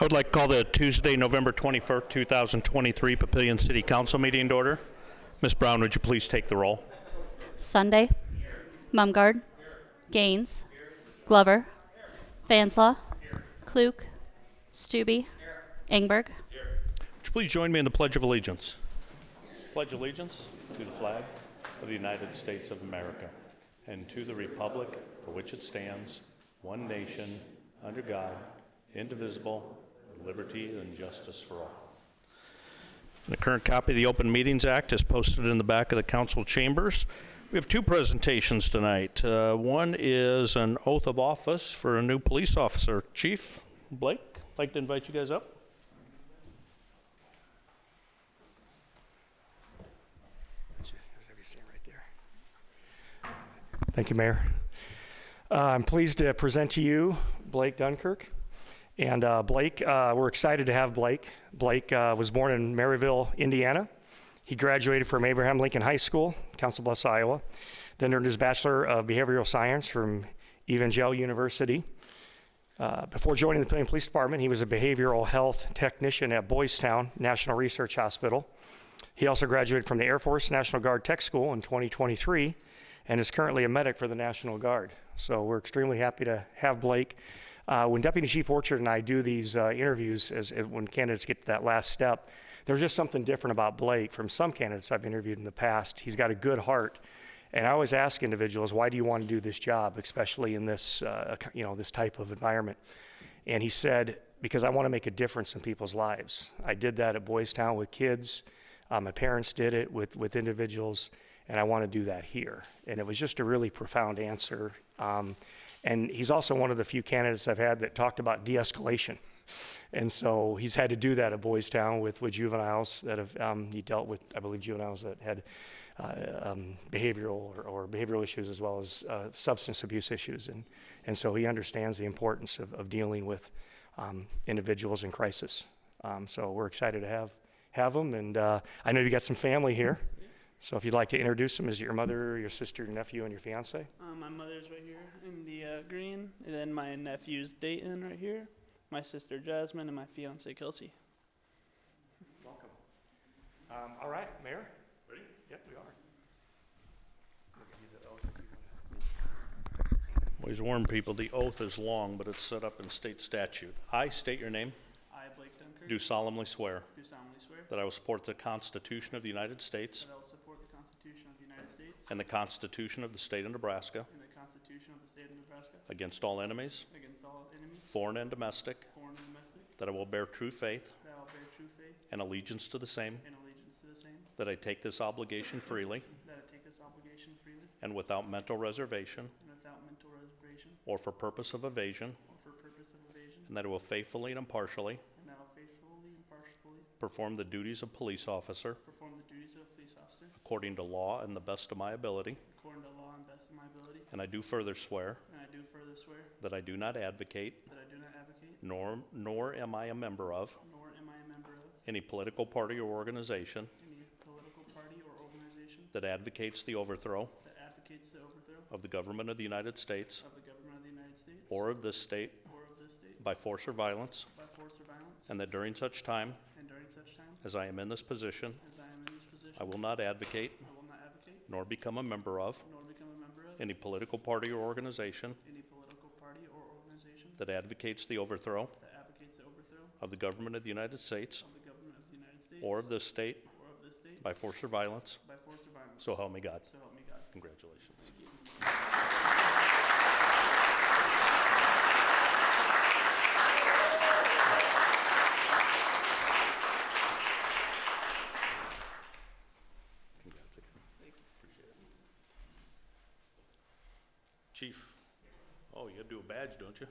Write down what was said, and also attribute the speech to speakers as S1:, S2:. S1: I would like to call the Tuesday, November 21st, 2023 Papillion City Council meeting to order. Ms. Brown, would you please take the roll?
S2: Sunday. Mumgard. Gaines. Glover. Fanslaw. Klug. Stube. Engberg.
S1: Would you please join me in the Pledge of Allegiance? Pledge allegiance to the flag of the United States of America and to the republic for which it stands, one nation, under God, indivisible, with liberty and justice for all. The current copy of the Open Meetings Act is posted in the back of the council chambers. We have two presentations tonight. Uh, One is an oath of office for a new police officer. Chief Blake, I'd like to invite you guys up.
S3: Thank you, Mayor. Uh, I'm pleased to present to you Blake Dunkirk. And uh, Blake, uh, we're excited to have Blake. Blake uh, was born in Maryville, Indiana. He graduated from Abraham Lincoln High School, Council Bluffs, Iowa, then earned his Bachelor of Behavioral Science from Evangel University. Uh, before joining the Plain Police Department, he was a behavioral health technician at Boystown National Research Hospital. He also graduated from the Air Force National Guard Tech School in 2023 and is currently a medic for the National Guard. So we're extremely happy to have Blake. Uh, when Deputy Chief Orchard and I do these uh, interviews, as, as when candidates get to that last step, there's just something different about Blake from some candidates I've interviewed in the past. He's got a good heart, and I always ask individuals, "Why do you want to do this job, especially in this, uh, you know, this type of environment?" And he said, Because I want to make a difference in people's lives. I did that at Boys Town with kids. Uh, my parents did it with, with individuals, and I want to do that here. And it was just a really profound answer. Um, and he's also one of the few candidates I've had that talked about de escalation. And so he's had to do that at Boys Town with, with juveniles that have, um, he dealt with, I believe, juveniles that had uh, um, behavioral or, or behavioral issues as well as uh, substance abuse issues. And, and so he understands the importance of, of dealing with um, individuals in crisis. Um, so we're excited to have, have him. And uh, I know you got some family here. So if you'd like to introduce him, is it your mother, your sister, your nephew, and your fiance?
S4: Uh, my mother's right here in the uh, green, and then my nephew's Dayton right here, my sister Jasmine, and my fiance Kelsey.
S3: Welcome. Um, all right, Mayor? Ready? Yep, we are.
S1: Always warn people, the oath is long, but it's set up in state statute. I state your name,
S4: I, Blake Dunkirk,
S1: do solemnly swear
S4: do solemnly swear
S1: that I will support the Constitution of the United States
S4: that I will support the Constitution of the United States
S1: and the Constitution of the State of Nebraska
S4: and the Constitution of the State of Nebraska
S1: against all enemies,
S4: against all enemies,
S1: foreign and domestic,
S4: foreign and domestic,
S1: that I will bear true faith
S4: that I will bear true faith
S1: and allegiance to the same,
S4: and allegiance to the same,
S1: that I take this obligation freely
S4: that I take this obligation freely
S1: and without mental reservation
S4: and without mental reservation
S1: or for purpose of evasion,
S4: or for purpose of evasion,
S1: and that I will faithfully and impartially
S4: and that I will faithfully and impartially
S1: perform the duties of police officer
S4: perform the duties of a police officer
S1: according to law and the best of my ability.
S4: According to law and best of my ability.
S1: And I do further swear
S4: And I do further swear
S1: that I do not advocate,
S4: that I do not advocate,
S1: nor, nor am I a member of,
S4: nor am I a member of,
S1: any political party or organization
S4: any political party or organization
S1: that advocates the overthrow
S4: that advocates the overthrow
S1: of the government of the United States
S4: of the government of the United States
S1: or of this state
S4: or of this state
S1: by force or violence,
S4: by force or violence,
S1: and that during such time
S4: and during such time
S1: as I am in this position,
S4: as I am in this position,
S1: I will not advocate
S4: I will not advocate,
S1: nor become a member of
S4: nor become a member of,
S1: any political party or organization
S4: any political party or organization
S1: that advocates the overthrow
S4: that advocates the overthrow
S1: of the government of the United States
S4: of the government of the United States
S1: or of this state
S4: or of this state
S1: by force or violence.
S4: by force or violence.
S1: So help me God.
S4: So help me God.
S1: Congratulations. Chief, oh, you gotta do a badge, don't you?